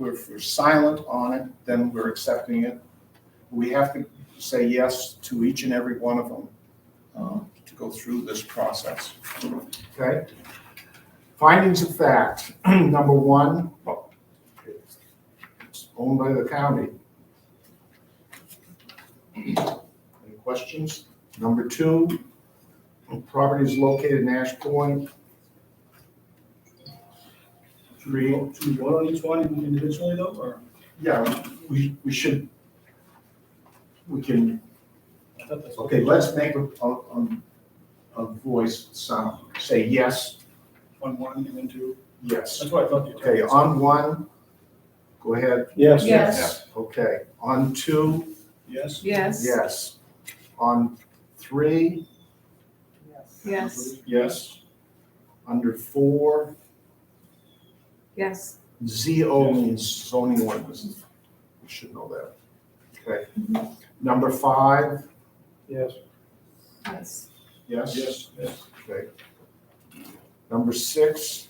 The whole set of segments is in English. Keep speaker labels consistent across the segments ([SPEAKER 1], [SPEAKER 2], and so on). [SPEAKER 1] if we're silent on it, then we're accepting it. We have to say yes to each and every one of them uh, to go through this process.
[SPEAKER 2] okay? Findings of fact, number one, it's owned by the county. Any questions? Number two, property is located in Ash Point. Three,
[SPEAKER 3] Should we vote on each one individually though, or?
[SPEAKER 1] Yeah, we, we should, we can,
[SPEAKER 3] I thought that's-
[SPEAKER 1] okay, let's make a, a, a- a voice sound, say yes,
[SPEAKER 3] On one and then two.
[SPEAKER 1] yes.
[SPEAKER 3] That's what I thought. you
[SPEAKER 1] Okay,
[SPEAKER 3] did.
[SPEAKER 1] on one, go ahead.
[SPEAKER 4] Yes.
[SPEAKER 5] Yes.
[SPEAKER 1] Okay, on two,
[SPEAKER 3] Yes?
[SPEAKER 5] Yes.
[SPEAKER 1] yes. On three,
[SPEAKER 5] Yes.
[SPEAKER 1] yes. Under four,
[SPEAKER 5] Yes.
[SPEAKER 1] ZO means zoning ordinance. You should know that. Okay.
[SPEAKER 5] Mm-hmm.
[SPEAKER 1] Number five,
[SPEAKER 4] Yes.
[SPEAKER 5] Yes.
[SPEAKER 1] yes?
[SPEAKER 3] Yes, yes.
[SPEAKER 1] Okay. Number six,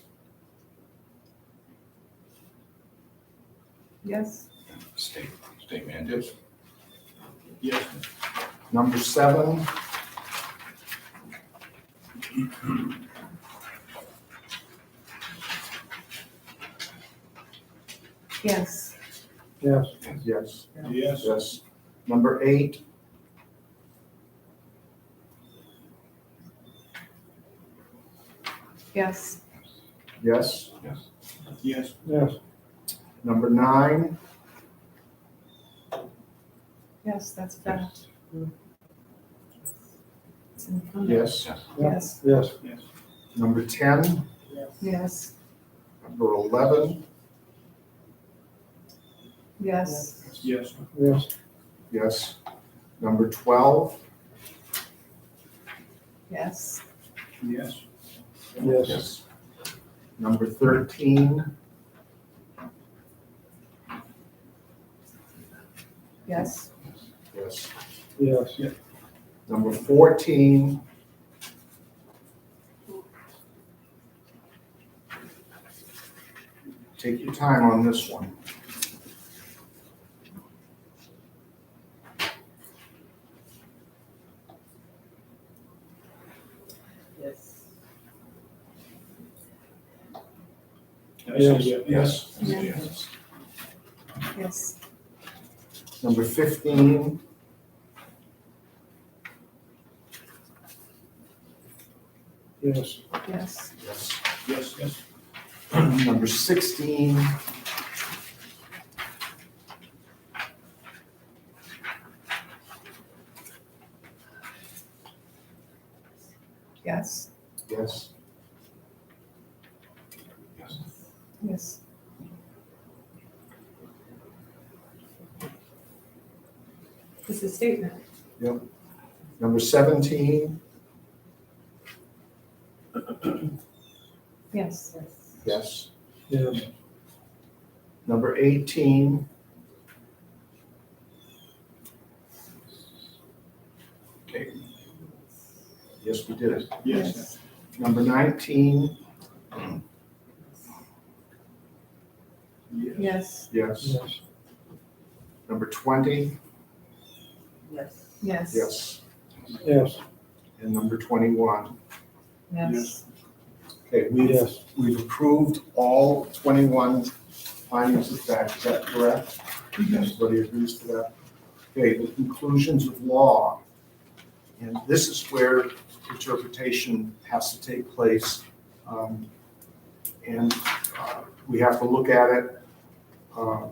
[SPEAKER 5] Yes.
[SPEAKER 6] State, state mandates?
[SPEAKER 3] Yes.
[SPEAKER 1] number seven,
[SPEAKER 5] Yes.
[SPEAKER 4] Yes.
[SPEAKER 1] yes,
[SPEAKER 3] Yes.
[SPEAKER 1] yes. Number eight,
[SPEAKER 5] Yes.
[SPEAKER 1] yes.
[SPEAKER 6] Yes.
[SPEAKER 3] Yes.
[SPEAKER 4] Yes.
[SPEAKER 1] Number nine,
[SPEAKER 5] Yes, that's fact. It's in front of-
[SPEAKER 1] yes.
[SPEAKER 6] Yes.
[SPEAKER 5] Yes.
[SPEAKER 4] Yes.
[SPEAKER 3] Yes.
[SPEAKER 1] Number ten,
[SPEAKER 5] Yes.
[SPEAKER 1] number eleven,
[SPEAKER 5] Yes.
[SPEAKER 3] Yes.
[SPEAKER 4] Yes.
[SPEAKER 1] yes. Number twelve,
[SPEAKER 5] Yes.
[SPEAKER 3] Yes.
[SPEAKER 4] Yes.
[SPEAKER 6] Yes.
[SPEAKER 1] number thirteen,
[SPEAKER 5] Yes.
[SPEAKER 1] yes.
[SPEAKER 4] Yes.
[SPEAKER 1] Number fourteen, take your time on this one.
[SPEAKER 7] Yes.
[SPEAKER 3] I said
[SPEAKER 4] Yes.
[SPEAKER 3] Yes.
[SPEAKER 6] Yes.
[SPEAKER 5] Yes.
[SPEAKER 1] Number fifteen,
[SPEAKER 4] Yes.
[SPEAKER 5] Yes.
[SPEAKER 1] yes.
[SPEAKER 3] Yes, yes.
[SPEAKER 1] Number sixteen,
[SPEAKER 5] Yes.
[SPEAKER 1] yes.
[SPEAKER 6] Yes.
[SPEAKER 5] Yes. It's a statement.
[SPEAKER 1] Number seventeen,
[SPEAKER 5] Yes.
[SPEAKER 1] yes.
[SPEAKER 4] Yes.
[SPEAKER 1] Number eighteen,
[SPEAKER 6] Okay.
[SPEAKER 1] yes, we did it.
[SPEAKER 3] Yes.
[SPEAKER 1] Number nineteen,
[SPEAKER 3] Yes.
[SPEAKER 5] Yes.
[SPEAKER 1] yes.
[SPEAKER 4] Yes.
[SPEAKER 1] Number twenty,
[SPEAKER 7] Yes.
[SPEAKER 5] Yes.
[SPEAKER 1] yes.
[SPEAKER 4] Yes.
[SPEAKER 1] And number twenty-one.
[SPEAKER 5] Yes.
[SPEAKER 1] Okay, we've,
[SPEAKER 4] Yes.
[SPEAKER 1] we've approved all twenty-one findings of fact, is that correct? Everybody agrees to that? Okay, the conclusions of law. And this is where interpretation has to take place. Um, And uh, we have to look at it uh,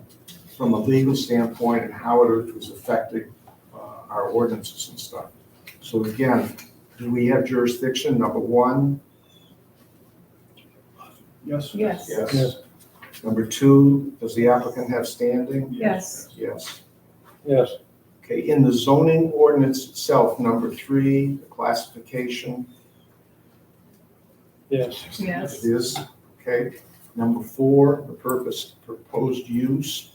[SPEAKER 1] from a legal standpoint and how it was affecting uh, our ordinances and stuff. So again, do we have jurisdiction, number one?
[SPEAKER 3] Yes.
[SPEAKER 5] Yes.
[SPEAKER 4] Yes.
[SPEAKER 1] Number two, does the applicant have standing?
[SPEAKER 5] Yes.
[SPEAKER 1] Yes.
[SPEAKER 4] Yes.
[SPEAKER 1] Okay, in the zoning ordinance itself, number three, the classification
[SPEAKER 4] Yes.
[SPEAKER 5] Yes.
[SPEAKER 1] is, okay. Number four, the purpose, proposed use.